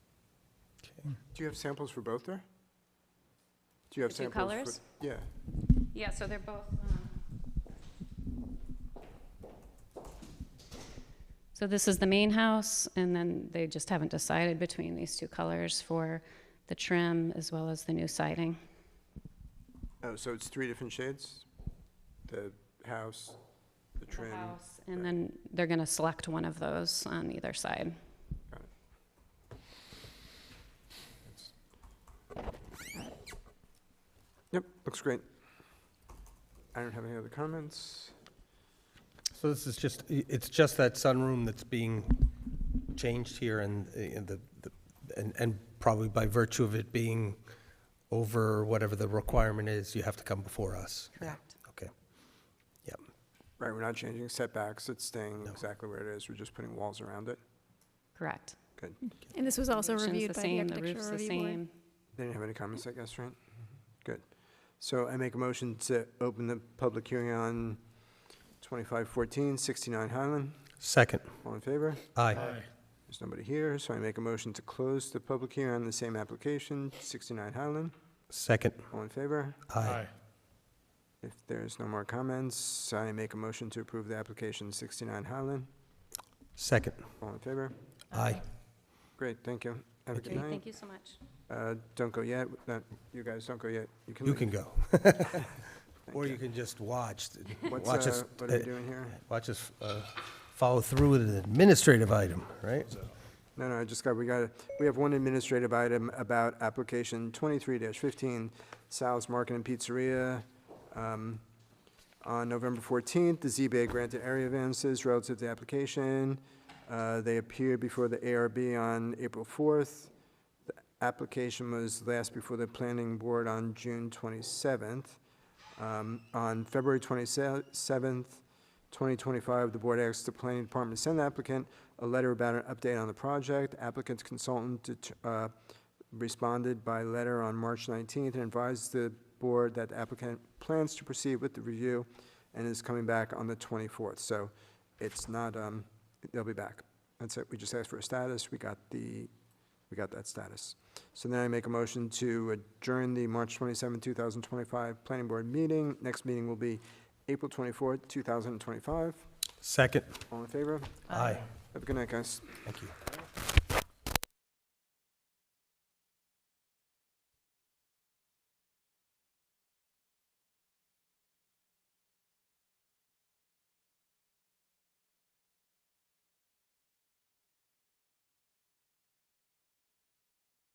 Do you have samples for both there? Do you have The two samples? colors? for- Yeah. Yeah, so they're both. um, So this is the main house, and then they just haven't decided between these two colors for the trim as well as the new siding. Oh, so it's three different shades? The house, the The trim? house, And then they're gonna select one of those on either side. Yep, looks great. I don't have any other comments. So this is just, i- it's just that sunroom that's being changed here and, uh, and the, the- and, and probably by virtue of it being over whatever the requirement is, you have to come before us. Correct. Okay. Yep, Right, we're not changing setbacks, it's staying No. exactly where it is, we're just putting walls around it. Correct. Good. And this was also Foundation's reviewed the by the same, the roof's architectural the review board. same. They didn't have any comments, Mm-hmm. I guess, right? Good. So I make a motion to open the public hearing on 2514, 69 Highland. second, All in favor? aye. There's nobody here, so I make a motion to close the public hearing on the same application, 69 Highland. Second, All in favor? aye. If there's no more comments, I make a motion to approve the application 69 Highland. Second, All in favor? aye. Great, thank you. Have a good Great, night. Thank you so much. Uh, Don't go yet. Uh, You guys don't go yet. You leave. can go. Or you you. can just watch, What's, watch us, uh, What are uh, we doing here? watch us uh, follow through with an administrative item, right? No, no, I just got, we got, we have one administrative item about application twenty-three fifteen, Sal's Market and Pizzeria. Um, On November fourteenth, the ZBA granted area variances relative to the application. Uh, They appeared before the ARB on April fourth. The application was last before the planning board on June twenty-seventh. Um, On February twenty-seventh, 2025, the board asked the planning department to send the applicant a letter about an update on the project. Applicant's consultant det- uh, responded by letter on March 19th and advised the board that the applicant plans to proceed with the review and is coming back on the 24th. So it's not, um, they'll be back. That's it. We just asked for a status. We got the, we got that status. So then I make a motion to adjourn the March 27, 2025 Planning Board meeting. Next meeting will be April 24, 2025. Second, All in favor? aye. Have a good night, guys. Thank you.